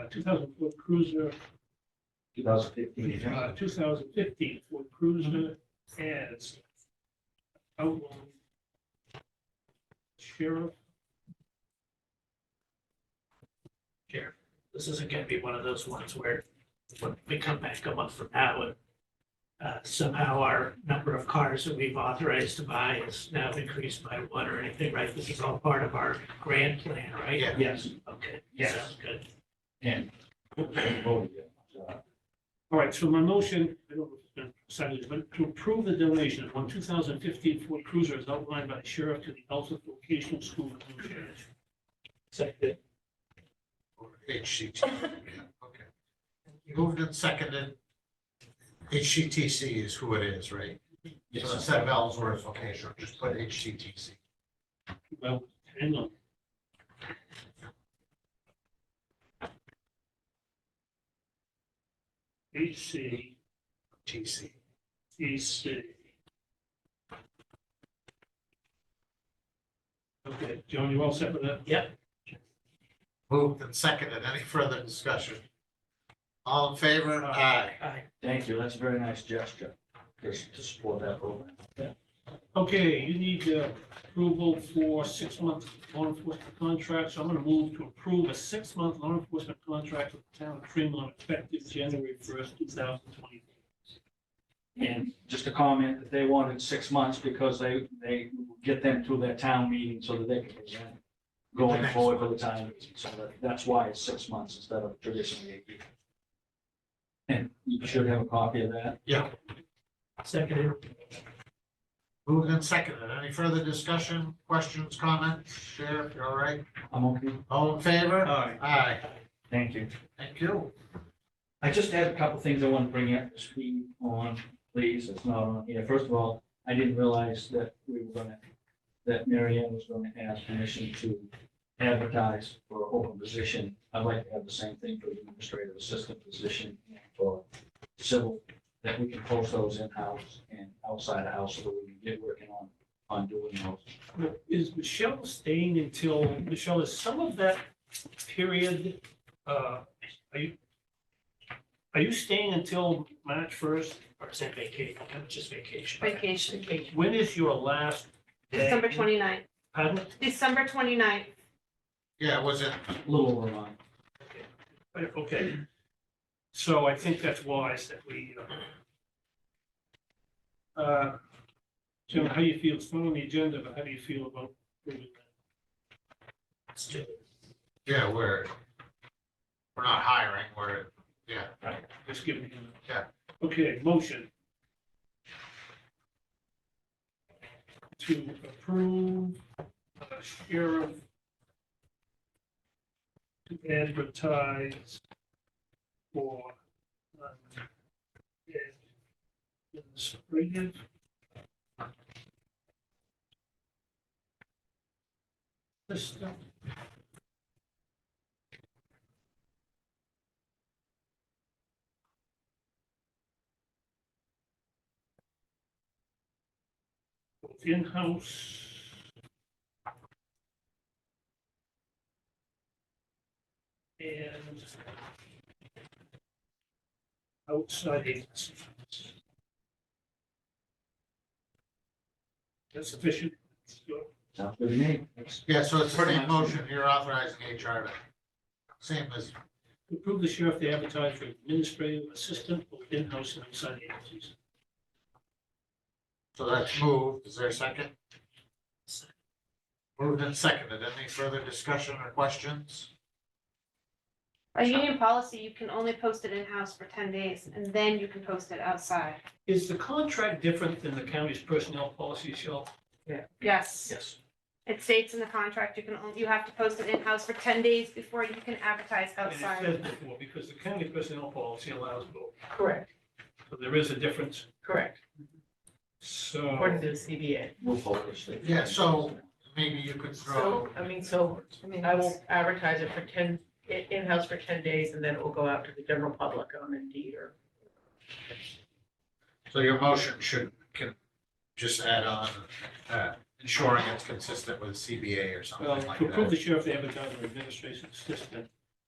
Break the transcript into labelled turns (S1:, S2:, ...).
S1: uh, two thousand Ford Cruiser,
S2: two thousand fifteen.
S1: uh, two thousand fifteen Ford Cruiser as outline sheriff.
S3: Sheriff, this isn't gonna be one of those ones where when we come back a month from now and uh, somehow our number of cars that we've authorized to buy is now increased by one or anything, right? This is all part of our grand plan, right?
S4: Yeah.
S1: Yes.
S3: Okay.
S1: Yes.
S3: Sounds good.
S2: And.
S1: All right, so my motion, I don't know if it's been decided, but to approve the donation of one two thousand fifteen Ford Cruiser as outlined by the sheriff to the Elsa Vocational School of Blue Ridge.
S3: Second.
S4: HCTC. Okay. Moved and seconded. HCTC is who it is, right? So instead of Ellsworth, okay, sure, just put HCTC.
S1: Well, hang on. HC,
S4: TC.
S1: Okay, John, you all set with that?
S4: Moved and seconded. Any further discussion? All in favor? Aye.
S3: Aye.
S2: Thank you, that's a very nice gesture, just to support that program.
S1: Okay, you need uh, approval for six-month law enforcement contract, so I'm gonna move to approve a six-month law enforcement contract with the town of Tremont effective January first, two thousand twenty.
S2: And just a comment that they wanted six months because they, they get them through their town meeting so that they can present
S4: The
S2: going
S4: next
S2: forward for the town. meeting. So that, that's why it's six months instead of traditionally eight years. And you should have a copy of that.
S3: Seconded.
S4: Moved and seconded. Any further discussion, questions, comments? Sheriff, you all right?
S2: I'm okay.
S4: All in favor?
S1: Aye.
S4: Aye.
S2: Thank you.
S4: Thank you.
S2: I just had a couple things I want to bring up to speed on, please, it's not on here. First of all, I didn't realize that we were gonna, that Mary Ann was gonna ask permission to advertise for an open position. I'd like to have the same thing for the administrative assistant position and for civil, that we can post those in-house and outside the house so that we can get working on, on doing those.
S1: Is Michelle staying until, Michelle, is some of that period, uh, are you, are you staying until March first?
S3: Or is that vacation? It's just vacation.
S5: Vacation,
S1: When is your last day?
S5: December 29th.
S1: Pardon?
S5: December 29th.
S4: Yeah, was it?
S2: Little over a month.
S1: Okay. So I think that's wise that we, uh, uh, Jim, how do you feel? It's not on the agenda, but how do you feel about moving that?
S3: Let's do it.
S4: Yeah, we're, we're not hiring, we're, yeah.
S1: Just giving him. a-
S4: Yeah.
S1: Okay, motion. To approve uh, sheriff to advertise for um, administrative system both in-house. And outside agencies. That's sufficient.
S2: Sounds good to me. That's-
S4: Yeah, so it's the
S2: Pretty
S4: same
S2: much.
S4: motion, you're authorizing HR to, same as,
S1: Approve the sheriff to advertise for administrative assistant, both in-house and outside agencies.
S4: so that's moved, is there a second? Moved and seconded, any further discussion or questions?
S5: By union policy, you can only post it in-house for ten days and then you can post it outside.
S1: Is the contract different than the county's personnel policy, Shel?
S5: Yes.
S2: Yes.
S5: It states in the contract, you can, on- you have to post it in-house for ten days before you can advertise
S1: And it
S5: outside.
S1: says before, because the county personnel policy allows both,
S6: Correct,
S1: so there is a difference,
S6: correct,
S1: so.
S6: according to the CBA.
S2: We'll focus. it.
S4: Yeah, so- Maybe you could throw,
S6: So, I mean, so I will advertise it for ten, i- in-house for ten days, and then it will go out to the general public on Indeed or.
S4: so your motion should, can just add on, uh, ensuring it's consistent with CBA or
S1: Well,
S4: something like
S1: to approve the
S4: that.
S1: sheriff to advertise for administration assistant